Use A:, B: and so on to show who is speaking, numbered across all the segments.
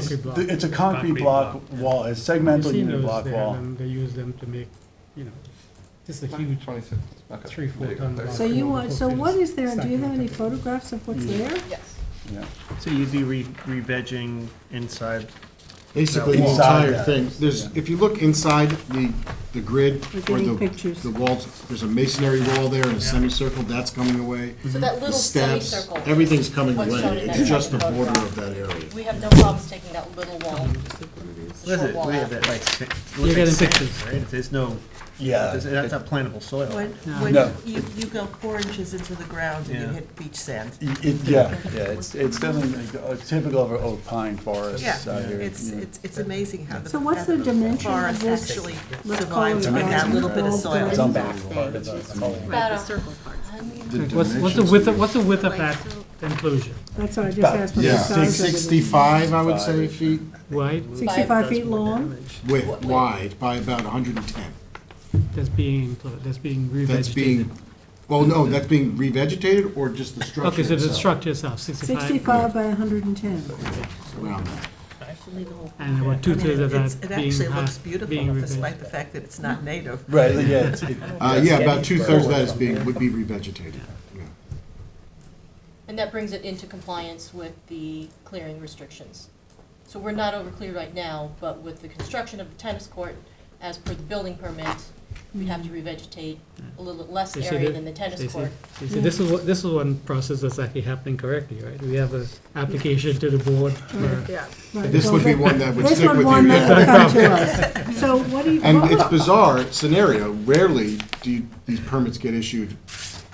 A: Concrete block.
B: It's a concrete
C: Concrete
B: block
C: block,
B: wall, it's
A: I've
B: segmental
A: seen
B: unit
A: those,
B: block
A: they have
B: wall.
A: them, They use them to make, you know, just a huge
D: Twenty-six, okay.
A: three, four
D: There you go.
A: ton
D: There-
A: block.
E: So you want, so what is there, and do you have any
A: Stacking.
E: photographs of what's
B: Mm.
E: there?
F: Yes.
B: Yeah.
C: So you'd be re, re-vegging inside,
G: Basically, the
B: Inside
G: entire
B: that,
G: thing, there's,
B: yeah.
G: if you look inside the, the grid
E: We're
G: or
E: getting
G: the,
E: pictures.
G: the walls, there's a masonry wall there and a semicircle, that's coming away.
F: So that
G: Mhm. The
F: little
G: steps,
F: semicircle.
G: everything's coming
F: What's
G: away.
F: shown in that
G: It's just the
F: second
G: border
F: photograph.
G: of that area.
F: We have no problems taking that little
C: what
F: wall.
C: is
F: Short
C: it,
F: wall
C: what
F: out.
C: is it, like, sa- it
A: You're
C: looks like
A: getting
C: sand,
A: pictures.
C: right? If there's no,
B: Yeah.
C: there's- that's not plantable soil.
H: When,
B: No.
H: when you, you go four inches into the ground and you
C: Yeah.
H: hit beach sand.
B: It- it- yeah, yeah, it's, it's definitely uh, typical of oak pine
H: Yeah,
B: forests out here.
H: it's,
B: Yeah.
H: it's, it's amazing how the.
E: So what's the
H: how
E: dimension of
H: Forest
E: this?
H: actually
E: Let's call
H: survives
E: it
H: with that little bit of
E: It's
H: soil.
B: It's unbelievable. It's- it's amazing.
F: About a
A: What's, what's the width, of- what's the width of that enclosure?
E: That's what I just
B: About-
E: asked. what the
G: Yeah,
E: size of it is.
G: sixty-five, I would say, feet
A: Wide,
E: Sixty-five feet long?
G: width, wide, by about hundred and ten.
A: that's being enclosed, that's being
G: That's being,
A: revegetated.
G: well, no, that's being revegetated or just the structure
A: Okay, so the
G: itself?
A: structure itself, sixty-five,
E: Sixty-five by hundred and ten.
G: Around that.
A: and about
H: I
A: two
H: mean,
A: thirds of
H: it's-
A: that
H: It
A: being,
H: actually
A: uh,
H: looks beautiful
A: being
H: despite the
A: revegetated.
H: fact that it's not native.
B: Right, yeah. it's- it-
G: Uh,
B: it's
G: yeah,
B: getting
G: about two-thirds of
B: lower
G: that is being,
B: somewhere.
G: would be revegetated, yeah.
F: And that brings it into compliance with the clearing restrictions. So we're not over clear right now, but with the construction of the tennis court, as per the building permit, we'd have to revegetate a little less
A: They said
F: area
A: it-
F: than the
A: they
F: tennis
A: said-
F: court.
A: they said this is what, this is one process that's actually happening correctly, right? We have an application to the board for
H: Yeah.
E: Right,
G: This
E: well,
G: would be
E: that-
G: one that would
E: This
G: stick
E: one,
G: with
E: one
G: you.
E: that
G: yeah.
E: will come to us. So what do you,
G: And it's
E: what would-
G: bizarre scenario, rarely do you- these permits get issued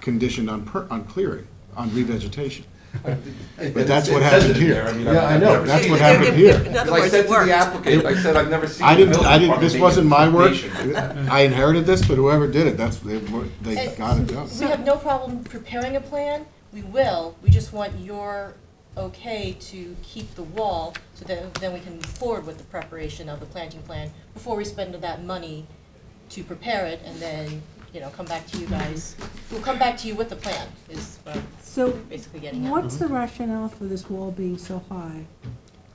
G: conditioned on, per- on clearing, on revegetation. But that's what
D: It says
G: happened
D: it in
G: here.
D: there, I mean,
G: Yeah,
D: I've
G: I know,
D: never
G: that's
D: seen
G: what
D: it.
G: happened
H: In
G: here.
H: other
D: Like I
H: words,
D: said
H: it
D: to the
H: worked.
D: applicant, I said, I've never seen.
G: I
D: the
G: didn't,
D: building
G: I didn't,
D: department
G: this
D: make
G: wasn't my work,
D: information.
G: I inherited this, but whoever did it, that's, they, were- they
F: And
G: got it done.
F: We have no problem preparing a plan, we will, we just want your okay to keep the wall, so that then we can move forward with the preparation of the planting plan, before we spend that money to prepare it, and then, you know, come back to you guys. We'll come back to you with the plan, is what I'm
E: so
F: basically getting at.
E: what's the rationale for this wall being so high?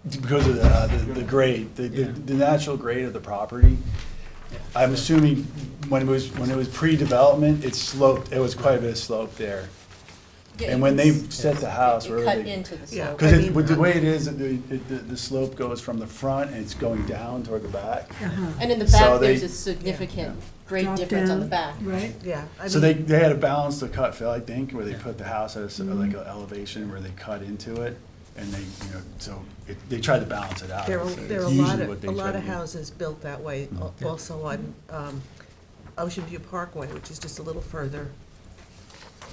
B: Because of the, uh, the the grade, the, the
A: Yeah.
B: the natural grade of the property. I'm assuming when it was, when it was pre-development, it sloped, it was quite a bit of slope there.
F: Yeah,
B: And
F: you
B: when
F: can
B: they
F: s-
B: set the house,
F: it
B: where
F: Cut
B: they.
F: into the
H: Yeah.
F: slope.
B: Because
H: I mean,
B: it, with the
H: um,
B: way it is, it- it- the, the slope goes from the front and it's going down toward the back.
H: Uh-huh.
F: And in the
B: So
F: back, there's
B: they-
F: a significant, great
E: Drop
F: difference on the back.
E: down, Right?
H: Yeah. I
B: So they,
H: mean,
B: they had to balance the cut, Phil, I think, where they put the house at a s-
H: Mm-hmm.
B: like an elevation where they cut into it. And they, you know, so it, they tried to balance it out.
H: There are,
B: so
H: there are a
B: it's
H: lot
B: usually what
H: of,
B: they
H: a
B: try
H: lot
B: to
H: of
B: do. Mm-hmm.
H: houses built that way, al- also on um, Ocean View Parkway, which is just a little further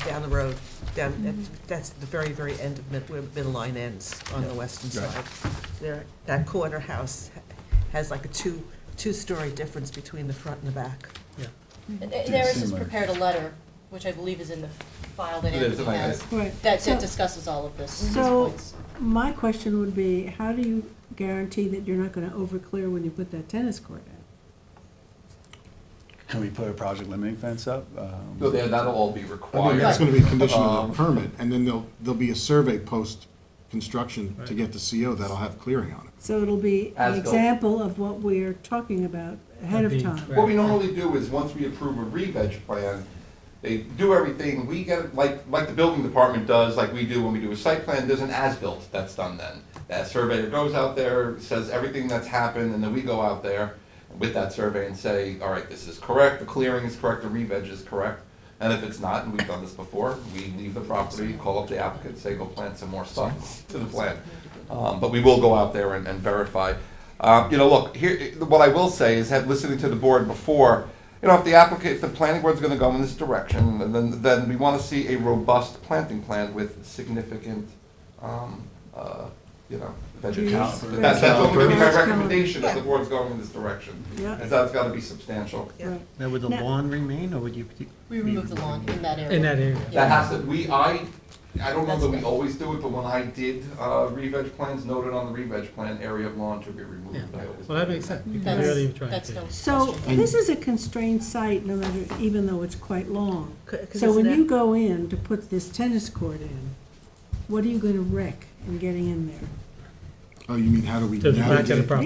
H: down the road, down,
B: Mm-hmm.
H: that- that's the very, very end of mid, where Midline ends on the western
B: Right.
H: side. There, that corner house has like a two, two-story difference between the front and the back.
F: Eris has
B: similar.
F: prepared a letter, which I believe is in the file that
D: It is,
F: Andy
D: I
F: has,
E: Right.
F: that
E: So-
F: that discusses all of this, these
E: So-
F: points.
E: My question would be, how do you guarantee that you're not gonna overclear when you put that tennis court in?
B: Can we put a project limiting fence up? Um,
D: No, that- that'll all be
G: I think
D: required.
G: that's gonna be conditioned on
D: Um,
G: the permit, and then there'll, there'll be a survey post-construction to get the CO that'll have clearing on it.
E: So it'll be an
D: As-built.
E: example of what we're talking about ahead of
A: Being
E: time.
D: What we normally do is, once we approve a re-veg plan, they do everything, we get, like, like the building department does, like we do when we do a site plan, there's an as-built that's done then. That surveyor goes out there, says everything that's happened, and then we go out there with that survey and say, all right, this is correct, the clearing is correct, the re-veg is correct. And if it's not, and we've done this before, we leave the property, call up the applicant, say, go plant some more stuff to the plan. Um, but we will go out there and, and verify. Um, you know, look, here, what I will say is that listening to the board before, you know, if the applicant, if the planning board's gonna go in this direction, then, then we wanna see a robust planting plan with significant, um, uh, you know, vegetation. That's, that's only gonna be my
E: Caliber.
D: recommendation, that the
H: Yeah.
D: board's going in this direction.
E: Yeah.
D: And that's gotta be substantial.
H: Yeah.
E: Right.
C: Now, would the
E: Now-
C: lawn remain, or would you?
F: We remove the lawn in that area.
A: in that area.
D: That
F: Yeah.
D: has to, we, I, I don't know that we always do it, but when I did, uh, re-veg plans, noted on the re-veg plan, area of lawn to be removed.
A: Yeah.
D: I always
A: Well, that
D: do
A: makes sense, because we already
F: That's,
A: tried
F: that's
A: to.
F: no
E: So
F: question.
E: this is a constrained site, no matter, even though it's quite long.
H: C- 'cause
E: So when
H: isn't
E: you
H: it-
E: go in to put this tennis court in, what are you gonna wreck in getting in there?
G: Oh, you mean how do we
A: To the back of the
G: navigate?
A: property.